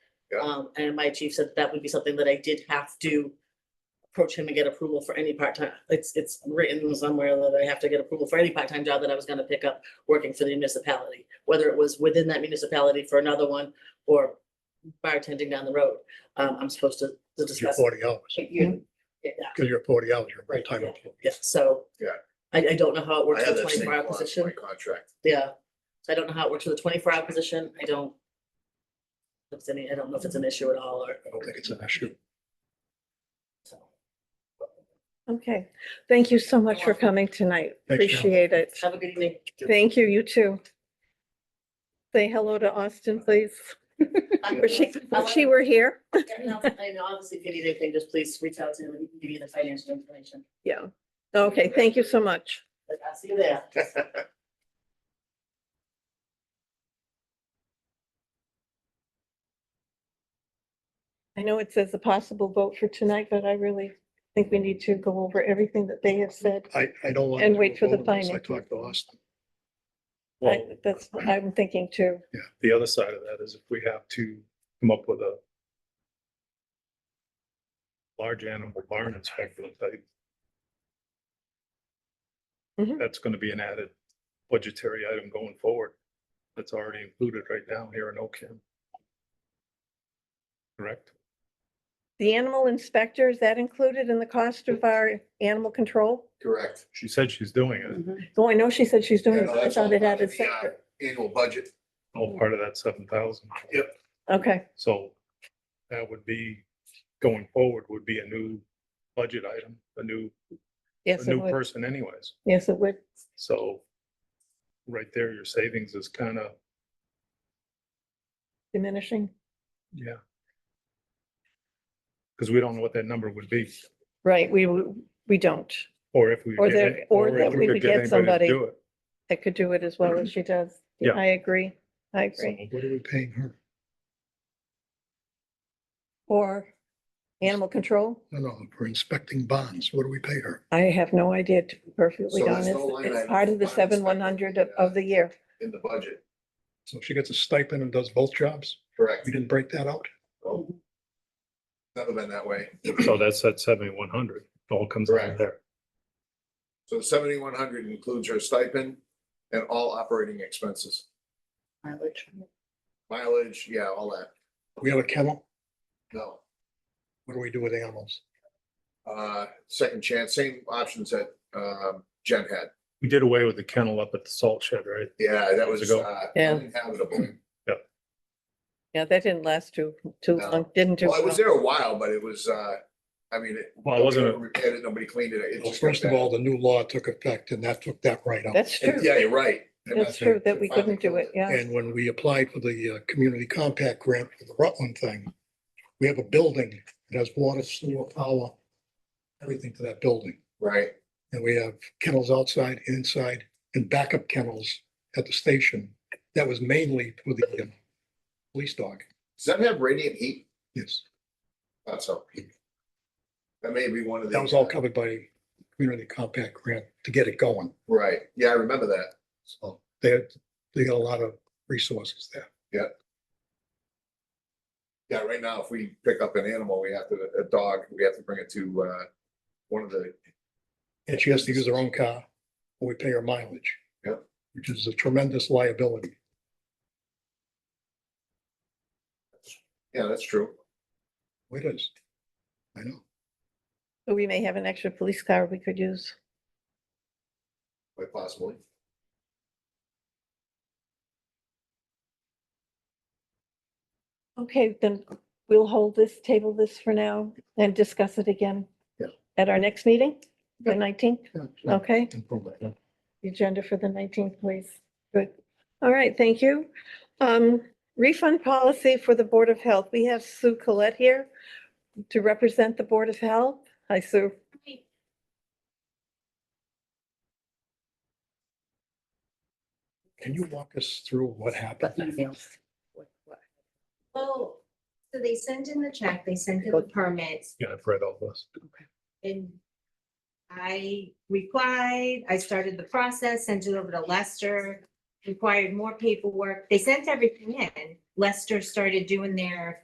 Yeah. Um, and my chief said that would be something that I did have to approach him and get approval for any part-time, it's, it's written somewhere that I have to get approval for any part-time job that I was gonna pick up working for the municipality, whether it was within that municipality for another one or bartending down the road. Um, I'm supposed to to You're discuss. it. forty hours, You- Yeah, because you're forty hours, you're a full-time yeah, employee. yeah, so. Yeah. I, I don't know how it works I for had the that same twenty-four hour clause in my position, contract. yeah. So I don't know how it works for the twenty-four hour position, I don't. If it's any, I don't know if it's an issue at all or. I don't think it's an issue. so. Okay, thank you so much for welcome. coming tonight. Thanks, Cheryl. Appreciate it. Have a good evening. Thank you, you too. Say hello to Austin, please. I Wish she, I if she were here. like- I know, obviously, if you need anything, just please reach out to him and he can give you the financial information. Yeah. Okay, thank you so much. But I'll see you there. I know it says a possible vote for tonight, but I really think we need to go over everything that they have said. I, I don't want. And to wait for the vote unless I finance. talked to Austin. I- Well, That's what I'm thinking too. the other side of that is if we have to come up with a large animal barn inspector type. Mhm. That's gonna be an added budgetary item going forward. That's already included right now here in Ocam. Correct? The animal inspector, is that included in the cost of our animal control? Correct. She said she's doing it, Though I know she said she's doing Yeah, it, no, but I that's all thought it part of added the, uh, separate. Annual budget. all part of that seven thousand. Yep. Okay, So that would be, going forward, would be a new budget item, a new, a yes, it new would. person anyways. Yes, it would. So right there, your savings is kind of, Diminishing. yeah. Because we don't know what that number would be, Right, we, w- we don't. or if we. Or get that- it- or if that we could would get anybody to somebody. do it. That could do it as well as she does. Yeah. I agree. I agree. So What are we paying her? Or animal control? No, no, for inspecting bonds, what do we pay her? I have no idea, to be perfectly So there's honest. no line It's item part of the for fire seven one hundred of, inspector. of the year. In the budget, So she gets a stipend and does both jobs? correct. We didn't break that out? Oh. Never been that way. so that's that seventy-one hundred, all comes out Correct. of there. So seventy-one hundred includes her stipend and all operating expenses, Mileage. mileage, yeah, all that. We have a kennel? No, What do we do with animals? uh, second chance, same options that, um, Jen had. We did away with the kennel up at the salt shed, right? Yeah, that was, Years ago. uh, Yeah. uninhabitable. Yeah, that didn't last too, too No. long, didn't do Well, it was well. there a while, but it was, uh, I mean, it. Well, it wasn't a- nobody Repaired it, nobody cleaned it. it Well, just got first of bad. all, the new law took effect and that took that right out. That's And, true. Yeah, you're right. And That's why true that we finally couldn't do killed it. Yeah. And when we applied for the uh, community compact grant for the Rutland thing, we have a building that has water, sewer, power, everything to that building. Right. And we have kennels outside, inside, and backup kennels at the station. That was mainly for the um, police dog. Does that have radiant heat? Yes, That's all. That may be one of the. that was all covered by community compact grant to get it going. Right, yeah, I remember that. So they had, they got a lot of resources there. Yeah, right now, if we pick up an animal, we have to, a dog, we have to bring it to, uh, one of the, And she has to use her own car, or we pay her mileage. Yep. Which is a tremendous liability. yeah, that's true. It is. I know. So we may have an extra police car we could use. Quite possibly. Okay, then we'll hold this, table this for now and discuss it again. Yeah. At our next meeting, the Yeah. nineteenth, Yeah, yeah. okay? And from that, yeah. the agenda for the nineteenth, please. Good. All right, thank you. Um, refund policy for the Board of Health. We have Sue Colette here to represent the Board of Health. Hi, Sue. Can you walk us through what happened? Oh, so they sent in the check, they sent in the permits Yeah, I've read all this. and I replied, I started the process, sent it over to Lester, required more paperwork. They sent everything in. Lester started doing their